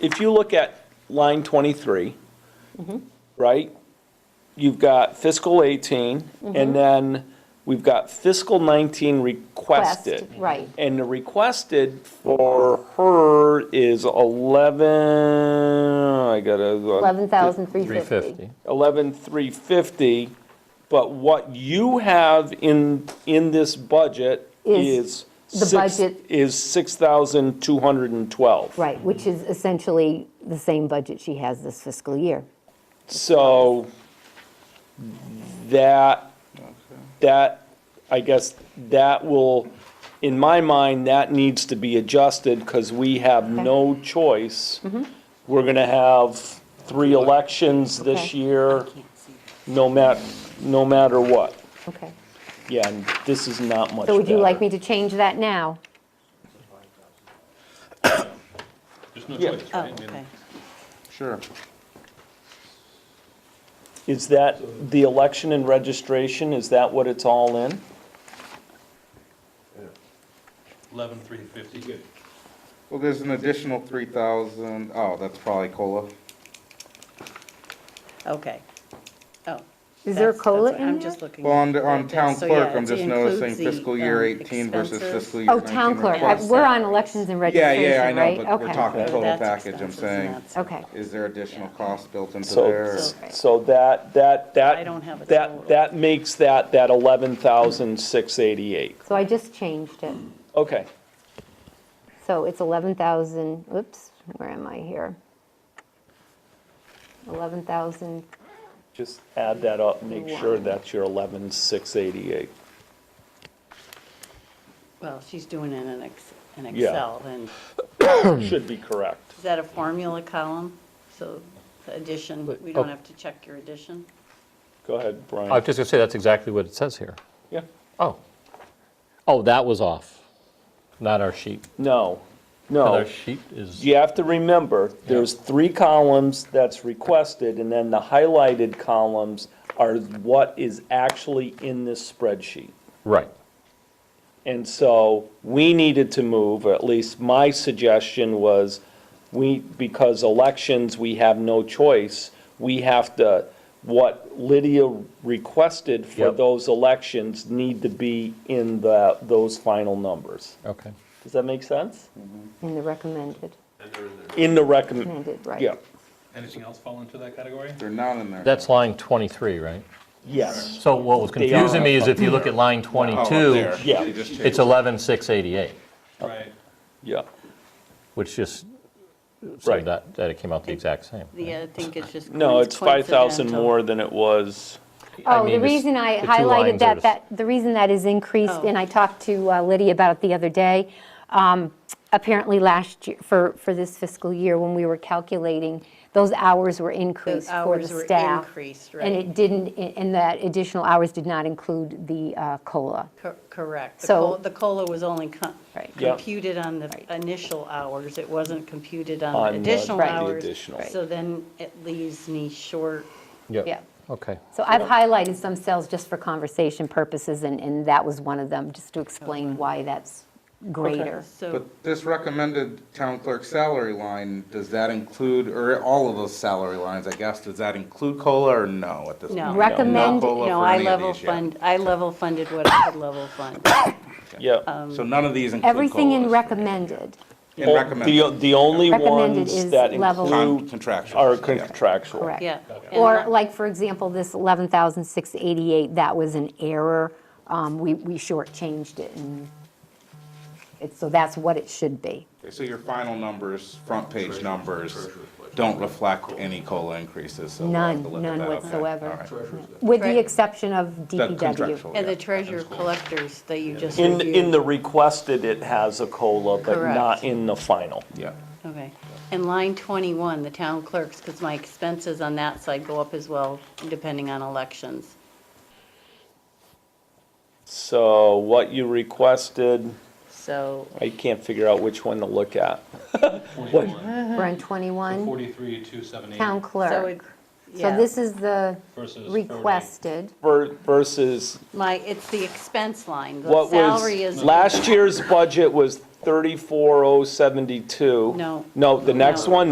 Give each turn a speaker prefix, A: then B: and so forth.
A: if you look at line 23,
B: Mm-hmm.
A: right? You've got fiscal 18,
B: Mm-hmm.
A: and then we've got fiscal 19 requested.
B: Request, right.
A: And the requested for her is 11, I gotta. uh,
B: $11,350.
C: 350.
A: 11,350, but what you have in, in this budget
B: Is
A: is.
B: the
A: six-
B: budget-
A: Is 6,212.
B: Right, which is essentially the same budget she has this fiscal year.
A: So that, that, I guess, that will, in my mind, that needs to be adjusted because we have no choice.
B: Mm-hmm.
A: We're going to have three elections this
B: Okay.
A: year, no mat, no matter what.
B: Okay.
A: Yeah, and this is not much
B: So would you
A: better.
B: like me to change that now?
D: There's no
A: Yeah.
D: choice,
E: Oh,
D: right? I mean,
E: okay.
A: Sure. Is that the election and registration, is that what it's all in?
D: Eleven, three fifty. Good.
F: Well, there's an additional three thousand, oh, that's probably COLA.
E: Okay. Oh.
B: Is there a
E: that's- that's
B: COLA
E: what-
B: in
E: I'm
B: there?
E: just looking.
F: Well, on,
E: at
F: the- on
E: this.
F: town
E: So,
F: clerk,
E: yeah,
F: I'm
E: it
F: just
E: includes
F: noticing
E: the,
F: fiscal year
E: um,
F: eighteen versus
E: expenses.
F: fiscal year
B: Oh,
F: nineteen.
B: town clerk, I-
F: request.
B: we're on elections and
F: Yeah, yeah, I
B: registration,
F: know,
B: right?
F: but we're
B: Okay.
F: talking total
E: That's
F: package, I'm
E: expenses
F: saying.
E: and that's-
B: Okay,
F: Is there additional cost built into there?
A: So,
F: or-
E: Right.
A: so that, that, that.
E: I don't have a total.
A: That, that makes that, that 11,688.
B: so I just changed it.
A: Okay,
B: So it's 11,000, oops, where am I here? 11,000,
A: just add that up, make sure that's your 11,688.
E: Well, she's doing it in ex- in
A: Yeah.
E: Excel, and
A: Should be correct.
E: is that a formula column? So the addition,
C: Wait,
E: we
C: oh.
E: don't have to check your addition?
A: Go ahead, Brian.
C: I was just going to say, that's exactly what it says here.
A: Yeah,
C: Oh. Oh, that was off, not our sheet.
A: no,
C: Our
A: no.
C: sheet is,
A: You have to remember, there's three columns that's requested, and then the highlighted columns are what is actually in this spreadsheet.
C: right.
A: And so we needed to move, or at least my suggestion was, we, because elections, we have no choice. We have to, what Lydia requested for
C: Yep.
A: those elections need to be in the, those final numbers.
C: Okay.
A: Does that make sense?
B: in the recommended,
A: In the recommend,
B: recommended, right?
A: yeah,
D: Anything else fall into that category?
F: They're not in there.
C: That's line 23, right?
A: yes,
C: So what was
A: They are
C: confusing me is if you look at line
F: Oh, up
C: 22,
F: there.
A: yeah.
F: They just changed
C: it's 11,688,
D: Right.
A: yeah.
C: which just
A: Right.
C: said that, that it came out the exact same.
E: The, I think it's just.
A: No, it's five thousand
E: coincidental.
A: more than it was,
C: I
B: Oh, the
C: mean, this-
B: reason I
C: the two
B: highlighted
C: lines are
B: that,
C: just-
B: that, the reason that is increased,
E: Oh.
B: and I talked to uh, Lydia about it the other day, um, apparently last year, for, for this fiscal year, when we were calculating, those hours were increased for the
E: hours were
B: staff.
E: increased,
B: And
E: right.
B: it didn't, and that additional hours did not include the uh, COLA.
E: Cor- Correct. The
B: So-
E: col- The COLA was only co-
B: Right.
A: Yeah.
E: computed on the initial hours. It wasn't computed
A: On
E: on
A: the-
E: additional
A: the
E: hours.
A: additional. Right.
E: So then it leaves me short.
B: Yeah.
C: Okay.
B: So I've highlighted some cells just for conversation purposes, and, and that was one of them, just to explain why that's greater.
E: So
F: But this recommended town clerk salary line, does that include, or all of those salary lines, I guess, does that include COLA or no at this point?
E: No.
F: No
B: Recommend-
F: COLA
E: No,
F: for
E: I
F: any of
E: level
F: these yet.
E: fund, I level funded what I could level fund.
B: Oh,
A: yeah.
E: um,
F: So none of these include
B: Everything in
F: COLAs.
B: recommended,
F: In recommended.
A: The, the only
B: Recommended is
A: ones that
B: level-
F: Con-
A: include
F: Contractual.
A: are
F: yeah.
A: contractual.
B: correct?
E: Yeah.
B: Or
E: And-
B: like, for example, this 11,688, that was an error. Um, We, we shortchanged it, and it's, so that's what it should be.
F: Okay, So your final numbers, front page numbers, don't reflect any COLA increases, so we'll have to
B: None,
F: look at
B: none
F: that, okay.
B: whatsoever.
F: All right.
B: With the
E: Right.
B: exception of
F: That
B: DPW.
F: contractual,
E: And the
F: yeah.
E: treasurer collectors that you just
A: In,
E: reviewed.
A: in the requested, it has a COLA, but
E: Correct.
A: not in the final.
F: Yeah.
E: Okay. And line 21, the town clerks, because my expenses on that side go up as well, depending on elections.
A: So what you requested,
E: So
A: I can't figure out which one to look at.
D: Forty-one,
B: We're on 21,
D: forty-three, two seventy-eight.
B: town
E: So it,
B: clerk. So
E: yeah.
B: this is the
D: Versus forty.
B: requested.
A: Ver- Versus
E: My, it's the expense line. The
A: what
E: salary is.
A: was, last year's budget was 34,072.
E: No.
A: No, the next
E: No.
A: one,